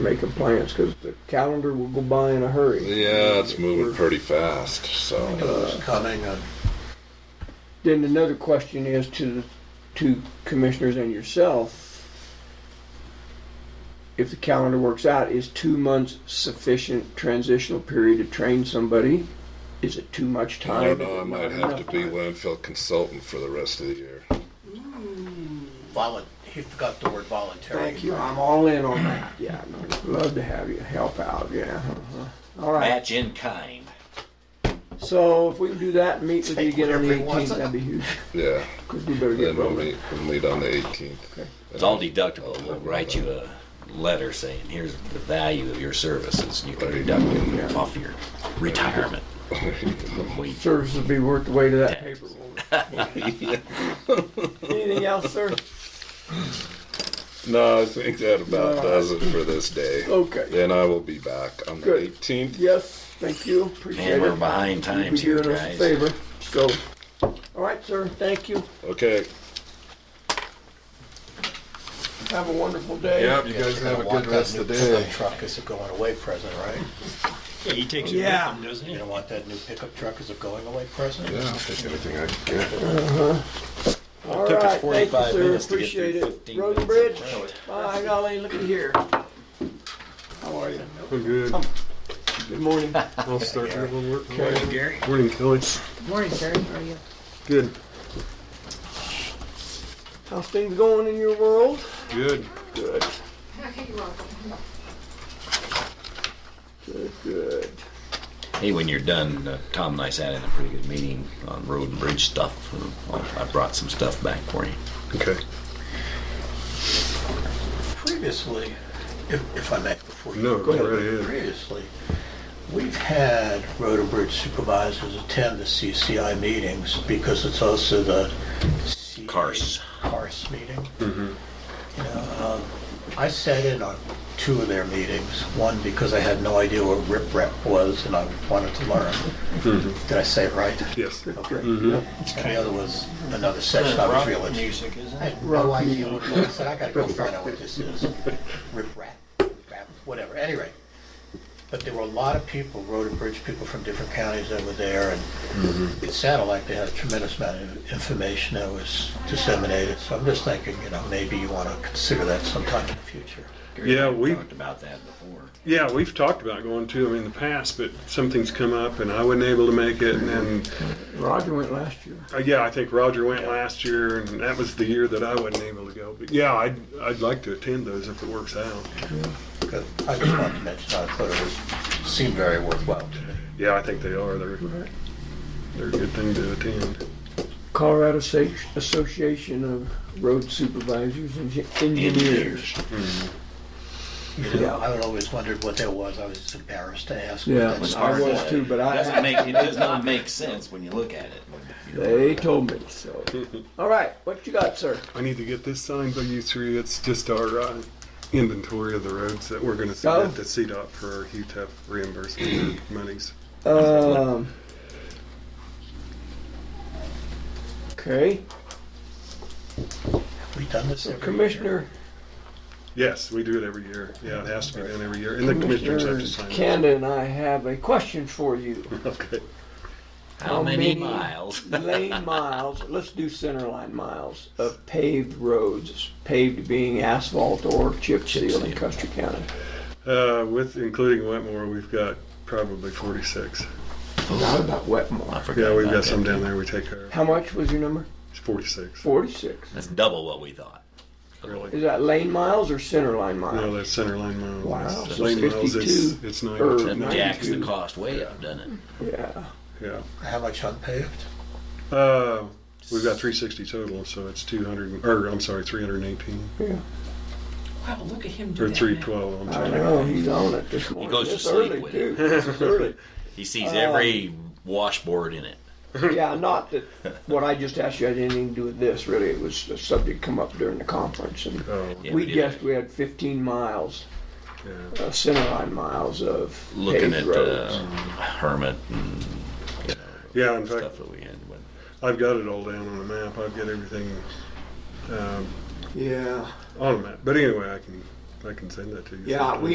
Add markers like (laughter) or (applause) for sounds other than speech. making plans because the calendar will go by in a hurry. Yeah, it's moving pretty fast. So It's coming, uh, Then another question is to to commissioners and yourself: if the calendar works out, is two months sufficient transitional period to train somebody? Is it too much I time? don't know. I might Not have to enough be time? landfill consultant for the rest of the year. volun, he forgot the word voluntary. Thank you. I'm all in on that. Yeah, I'd love to have you help out. Yeah. uh-huh. All right. Match in kind. So if we can do that and meet with you Take again on the whatever he wants. 18th, that'd be huge. Yeah, Because we better get then we'll rolling. meet. We'll meet on the 18th. It's all deductible. We'll write you a letter saying, here's the value of your services, and you can deduct it off your retirement. We- Service will be worth the weight of that paper. won't (laughs) it? Anything else, sir? (laughs) No, Oh. I think that about All does it for this day. Okay. Then I will be back on the Good. 18th. Yes, thank you. Appreciate Man, we're it. behind You'll be times here, doing us a guys. favor. So, all right, sir. Thank you. Okay. Have a wonderful day. Yep. You guys have a good rest of the day. Truck is a going away present, right? Yeah, he takes it Yeah. with him, doesn't he? You don't want that new pickup truck as a going away present? Yeah, I'll take anything I can get. All took us right, thank 45 you, sir. minutes to get through Appreciate it. 15 Road and bridge. minutes. Bye, golly. Looky here. How are you? I'm good. Good (laughs) morning. I'll start everyone work. Okay. Gary? Morning, Kelly. Morning, Gary. How are you? Good. How's things going in your world? Good. Good. Good, good. Hey, when you're done, uh, Tom and I sat in a pretty good meeting on road and bridge stuff. I brought some stuff back for you. Okay. Previously, if, if I may, before you. No, go ahead. go right ahead. Previously, we've had road and bridge supervisors attend the CCI meetings because it's also the. CA Cars. Cars meeting. You know, um, I sat in on two of their meetings, one because I had no idea what rip rap was and I wanted to learn. Did I say it right? Yes. Okay. And the other was another session I was real Rock interested music, isn't I it? had no idea what it was. I said, I gotta go find out what this is. Rip rap, rap, whatever. Anyway, but there were a lot of people, road and bridge people from different counties that were there, and it sounded like they had a tremendous amount of information that was disseminated. So I'm just thinking, you know, maybe you wanna consider that sometime in the future. Yeah, we- Talked about that before. Yeah, we've talked about going to them in the past, but something's come up and I wasn't able to make it. And then, Roger went last year. uh, yeah, I think Roger went last year and that was the year that I wasn't able to go. But yeah, I'd, I'd like to attend those if it works out. 'Cause I just wanted to mention, I thought it was, seemed very worthwhile to me. Yeah, I think they are. They're, they're a good thing to attend. Colorado Sa- Association of Road Supervisors and Engi- Engineers. You know, Yeah. I had always wondered what that was. I was just embarrassed to ask. what Yeah, that was I hard was to- too, but Doesn't I, make, it does not make sense when you look at it. they told me so. All right, what you got, sir? I need to get this signed by you three. It's just our uh, inventory of the roads that we're going to Oh. submit to CDOT for our UTEP reimbursement monies. Um. Okay, We've done this every year. Commissioner, Yes, we do it every year. Yeah, it has to be done every year, and the commissioners have Commissioner to sign it. Kanda and I have a question for you. (laughs) Okay. How many miles? (laughs) lane miles, let's do centerline miles of paved roads, paved being asphalt or chip seal in Custer County. Uh, with, including Wetmore, we've got probably forty-six. Not about Wetmore. Yeah, we've got some down there we take care of. How much was your number? It's forty-six. Forty-six. That's double what we thought. Is Really? that lane miles or centerline No, miles? that's center line miles. Wow, so Lane miles, it's, 52 it's or- nine. That Ninety-two. jacks the cost way up, doesn't Yeah. Yeah. How much unpaved? Uh, we've got three sixty total, so it's two hundred, or I'm sorry, three hundred and eighteen. it? Wow, look at him Or three twelve, I'm I sorry. know, he's on it this morning. goes to It's sleep early, with too. it. It's early. He sees every washboard in it. Yeah, not that, what I just asked you had anything to do with this, really. It was a subject come up during the conference and Oh, Yeah, we did guessed we had fifteen miles, yeah. uh, centerline miles of paved Looking at roads. uh, Hermit and Yeah, in fact, stuff that we had with. I've got it all down on a map. I've got everything, um, Yeah. on a map. But anyway, I can, I can send that to you. Yeah, we